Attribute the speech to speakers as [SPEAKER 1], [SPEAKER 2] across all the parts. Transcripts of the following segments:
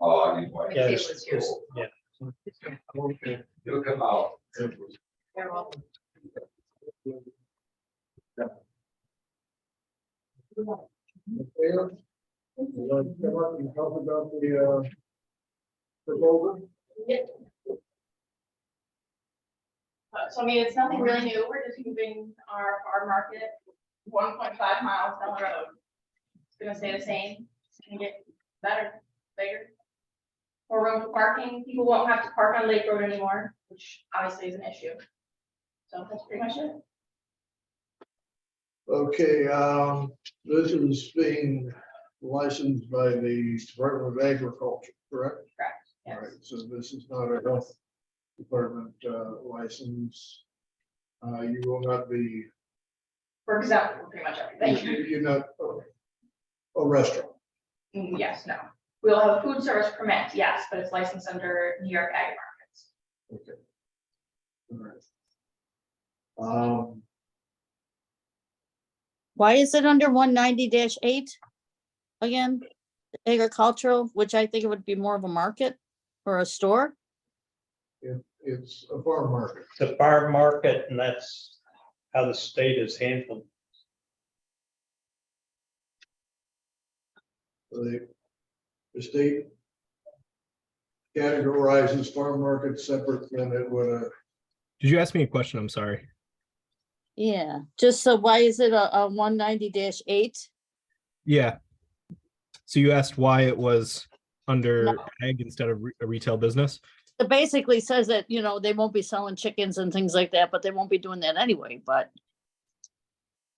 [SPEAKER 1] Uh, anyway.
[SPEAKER 2] Yeah,
[SPEAKER 3] it was yours.
[SPEAKER 2] yeah.
[SPEAKER 1] It'll come out.
[SPEAKER 3] They're all-
[SPEAKER 4] You want to come up and talk about the, uh, proposal?
[SPEAKER 5] Uh, So I mean, it's nothing really new, we're just moving our, our market one point five miles down the road. It's gonna stay the same, it's gonna get better, bigger. More room for parking, people won't have to park on Lake Road anymore, which obviously is an issue. So that's pretty much it.
[SPEAKER 4] Okay, um, this is being licensed by the Department of Agriculture, correct?
[SPEAKER 5] Yes.
[SPEAKER 4] All right, So this is not a health department, uh, license. Uh, you will not be,
[SPEAKER 5] For example, pretty much everything.
[SPEAKER 4] you're not oh, a- a restaurant.
[SPEAKER 5] Mm, Yes, no. We'll have a food service permit, yes, but it's licensed under New York Ag Markets.
[SPEAKER 4] All right. Um,
[SPEAKER 6] Why is it under one ninety eight? Again, agricultural, which I think it would be more of a market or a store.
[SPEAKER 4] it's a farm market.
[SPEAKER 2] The farm market, and that's how the state is handled.
[SPEAKER 4] The, the state categorizes farm market separate than it would a
[SPEAKER 7] Did you ask me a question? I'm sorry.
[SPEAKER 6] Yeah, just so why is it a, a one ninety eight?
[SPEAKER 7] Yeah. So you asked why it was under ag instead of re- a retail business?
[SPEAKER 6] It basically says that, you know, they won't be selling chickens and things like that, but they won't be doing that anyway, but.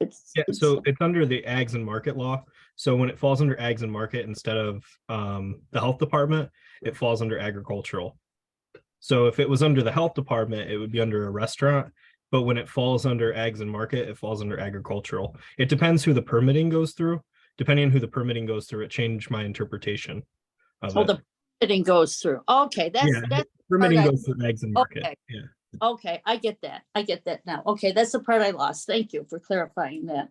[SPEAKER 6] It's.
[SPEAKER 7] Yeah,
[SPEAKER 6] it's-
[SPEAKER 7] so it's under the ags and market law. So when it falls under ags and market instead of um, the health department, it falls under agricultural. So if it was under the health department, it would be under a restaurant. But when it falls under ags and market, it falls under agricultural. It depends who the permitting goes through. Depending on who the permitting goes through, it changed my interpretation of
[SPEAKER 6] Oh,
[SPEAKER 7] it.
[SPEAKER 6] the bidding goes through. Okay, that's,
[SPEAKER 7] Yeah.
[SPEAKER 6] that's,
[SPEAKER 7] Permitting
[SPEAKER 6] Okay.
[SPEAKER 7] goes to the eggs and
[SPEAKER 6] Okay.
[SPEAKER 7] market, yeah.
[SPEAKER 6] okay, I get that. I get that now. Okay, that's the part I lost. Thank you for clarifying that.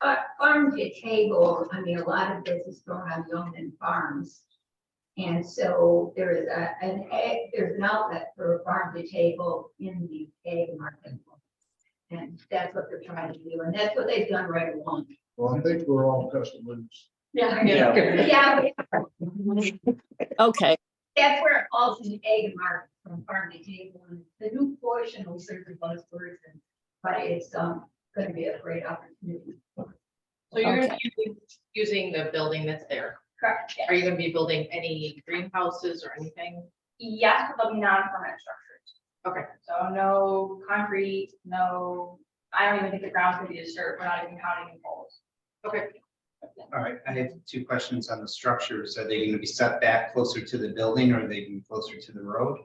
[SPEAKER 3] But farm to table, I mean, a lot of business going on Yeoman Farms. And so there is a, an egg, there's an outlet for farm to table in the egg market. And that's what they're trying to do, and that's what they've done right along.
[SPEAKER 4] Well, I think we're all customers.
[SPEAKER 5] Yeah.
[SPEAKER 3] Yeah,
[SPEAKER 6] Okay,
[SPEAKER 3] that's where it all an egg market from farm to table, and the new portion will serve the buzzwords and, but it's, um, gonna be a great opportunity.
[SPEAKER 8] So you're gonna be using- using the building that's there.
[SPEAKER 5] Correct, yeah.
[SPEAKER 8] Are you gonna be building any greenhouses or anything?
[SPEAKER 5] Yes, but they'll be non-permanent structures.
[SPEAKER 8] Okay.
[SPEAKER 5] So no concrete, no, I don't even think the ground's gonna be disturbed, we're not even counting the poles.
[SPEAKER 8] Okay.
[SPEAKER 9] All right, I have two questions on the structures. Are they gonna be set back closer to the building or are they gonna be closer to the road?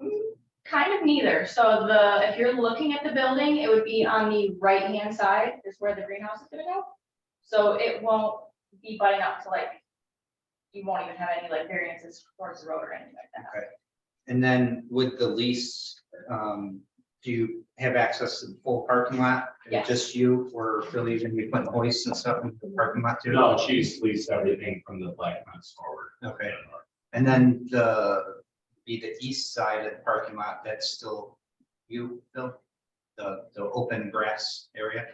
[SPEAKER 5] Mm, Kind of neither, so the, if you're looking at the building, it would be on the right-hand side, is where the greenhouse is gonna go. So it won't be butting up to like, you won't even have any like variances towards the road or anything like that.
[SPEAKER 9] And then with the lease, um, do you have access to the full parking lot?
[SPEAKER 5] Yes.
[SPEAKER 9] Just you or really gonna be putting hoists and stuff in the parking lot too?
[SPEAKER 10] No, she's leased everything from the Black Mountain forward.
[SPEAKER 9] Okay, and then the, be the east side of the parking lot, that's still you, Bill? The, the open grass area?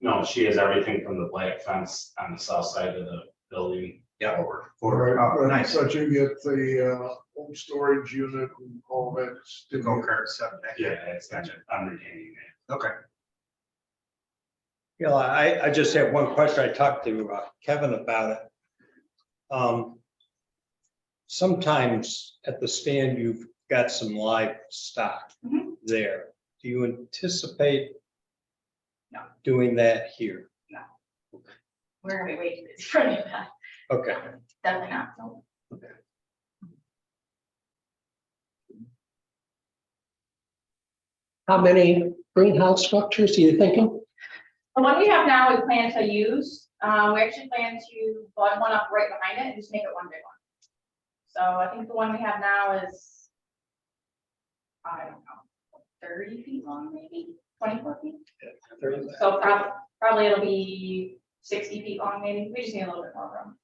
[SPEAKER 10] No, she has everything from the black fence on the south side of the building.
[SPEAKER 9] Yeah.
[SPEAKER 10] forward.
[SPEAKER 9] Or, oh, nice,
[SPEAKER 4] But you get the uh, home storage unit and all that.
[SPEAKER 9] the
[SPEAKER 4] stuff.
[SPEAKER 9] go-kart stuff back
[SPEAKER 10] Yeah,
[SPEAKER 9] there.
[SPEAKER 10] it's, I'm retaining that.
[SPEAKER 9] Okay.
[SPEAKER 2] Yeah, I, I just have one question. I talked to uh, Kevin about it. Um, Sometimes at the stand, you've got some live stock
[SPEAKER 5] Mhm.
[SPEAKER 2] there. Do you anticipate
[SPEAKER 5] No.
[SPEAKER 2] doing that here?
[SPEAKER 5] We're gonna be waiting for any of that,
[SPEAKER 2] Okay.
[SPEAKER 5] definitely not, so.
[SPEAKER 11] How many greenhouse structures are you thinking?
[SPEAKER 5] The one we have now, we plan to use, uh, we actually plan to bud one up right behind it and just make it one big one. So I think the one we have now is, I don't know, thirty feet long, maybe, twenty-four feet? So prob- probably it'll be sixty feet long, maybe, we just need a little bit more room.